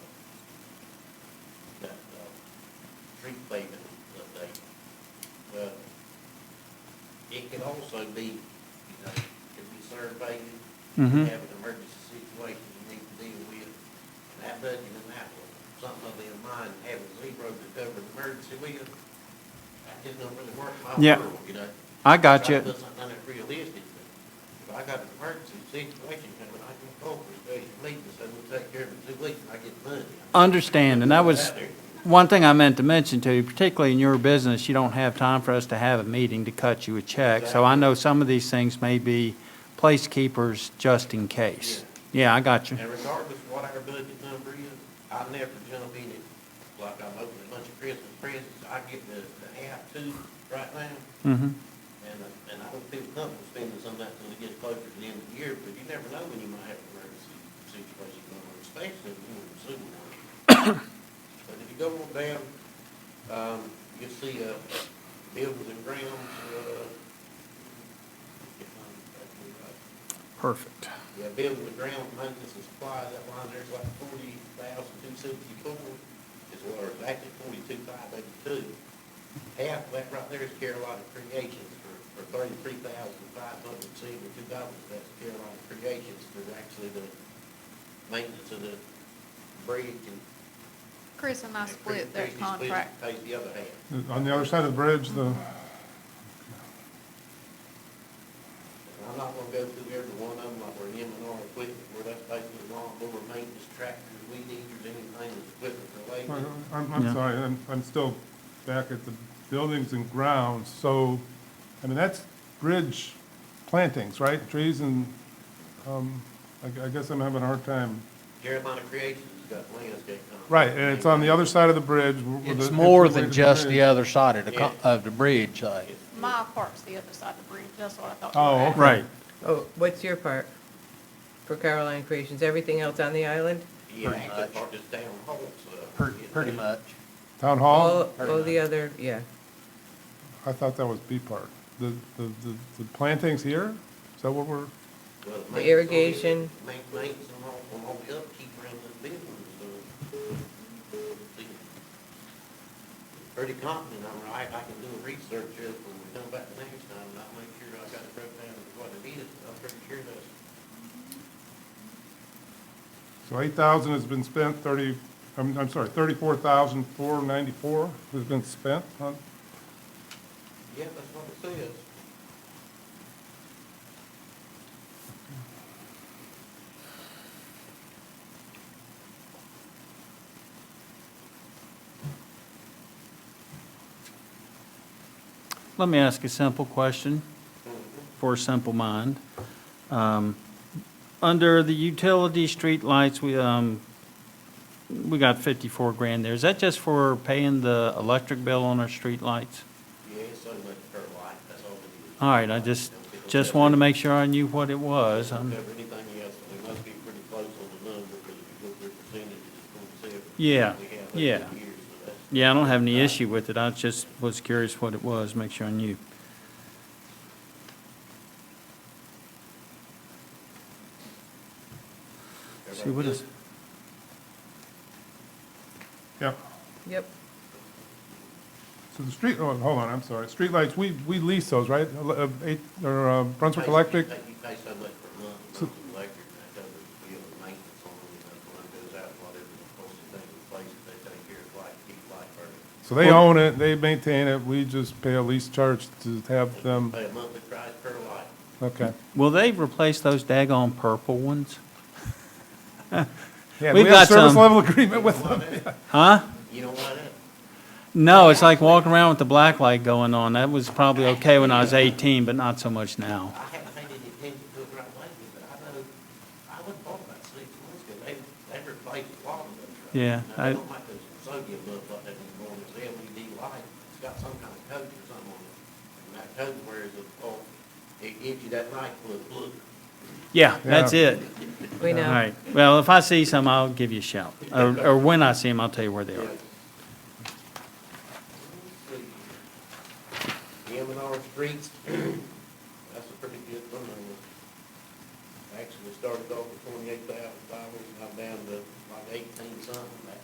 payment uh, update. Well, it could also be, you know, could be surveyed, Mhm. have an emergency situation you need to deal with. And that budget and that one, something of in mind, having zero to cover an emergency with, that just don't really work in my Yeah. world, you know? I got Try to you. Put something that's realistic, but if I got an emergency situation coming, I can call for a special meeting, so we'll take care of it in two weeks, and I get the money. Understand, and that was Out there. one thing I meant to mention to you, particularly in your business, you don't have time for us to have a meeting to cut you a check. So I know some of these things may be placekeepers just in case. Yeah, I got you. And regardless of what our budget number is, I never jump in it, like I'm opening a bunch of Christmas presents, I get the, the half two right now, hmm and, uh, and I don't feel comfortable spending some of that until it gets closer to the end of the year, but you never know when you might have an emergency situation going on, especially if you're in sewer work. But if you go on down, um, you'll see, uh, buildings and grounds, uh, if I'm, if i right. Perfect. Yeah, building the ground maintenance and supply, that line there's like forty thousand two seventy-four, is what, or actually forty-two five eighty-two. Half of that right there is Carolina Creations for, for thirty-three thousand five hundred seventy-two dollars, that's Carolina Creations for actually the maintenance of the bridge and. Chris and I and split their Creations split contract. Pays the other half. On the other side of the bridge, the, And I'm not gonna go through every one of them, like where M and R equipment, where that's basically lawnmower maintenance, tractors, weed eaters, anything that's equipment related. I'm, I'm Yeah. sorry, I'm, I'm still back at the buildings and grounds. So, I mean, that's bridge plantings, right? Trees and, um, I gu- I guess I'm having a hard time. Carolina Creations has got landscape company. Right, and it's on the other side of the bridge. where the- It's more the way than to just bridge. the other side of the, co- Yeah. of the bridge, uh, My part's the other side of the bridge, that's what I thought. you were Oh, asking. okay. Right. Oh, what's your part for Caroline Creations? Everything else on the island? Yeah, Pretty actually, much. part is down Holt's, uh, per- yeah, pretty they- much. Town hall? Uh, All, all the other, yeah. I thought that was B part. The, the, the- the plantings here? Is that what we're, well, maintenance The on it, irrigation. ma- Maintenance on all, on all the upkeep around the buildings, so. see, Pretty confident I'm right, I can do a research of it when we come back the next time, and I'll make sure I got it broke down to what it is, I'm pretty sure that's. so eight thousand has been spent, thirty, I'm, I'm sorry, thirty-four thousand four ninety-four has been spent on, Yeah, that's what it says. Let me ask a simple question for a simple mind. Um, Under the utility street lights, we, um, we got 54 grand there. Is that just for paying the electric bill on our street lights? Yeah, it's so much per light, that's all it is. All right, I just, just wanted to make sure I knew what it was. Don't Um, cover anything else, we must be pretty close on the number, because if you look at the percentage, it's going to say. Yeah, we have over yeah. the years, so that's- Yeah, I don't have any issue with it. I just was curious what it was, make sure I knew. See, what is, yeah. Yep. So the street, oh, hold on, I'm sorry. Streetlights, we, we lease those, right? Ele- uh, Eight, or uh, Brunswick Electric? You pay- you pay so much per month, So- monthly electric, and that covers the bill and maintenance on it, and that one goes out, whatever the cost of things, place that they take care of, like, keep light burning. So they own it, they maintain it, we just pay a lease charge to have them, Pay a monthly price per light. okay. will they replace those daggone purple ones? Yeah, We've we got have service some- level agreement with You don't them. want that. Huh? You don't want that? No, it's like walking around with the black light going on. That was probably okay when I was 18, but not so much now. I haven't paid any attention to it right lately, but I know, I would have thought about six months ago, they, they replaced a lot of those. right? Yeah, Now, I- they don't make those sodium up like that anymore, it's LED light, it's got some kind of coat or something on it. And that coat wears a, oh, it gives you that light look, look. Yeah, that's Yeah. it. We All know. right. Well, if I see some, I'll give you a shout. Or, or when I see them, I'll tell you where they Yeah. are. M and R streets, that's a pretty good one. Actually, we started off with twenty-eight thousand dollars, and I'm down to like eighteen something,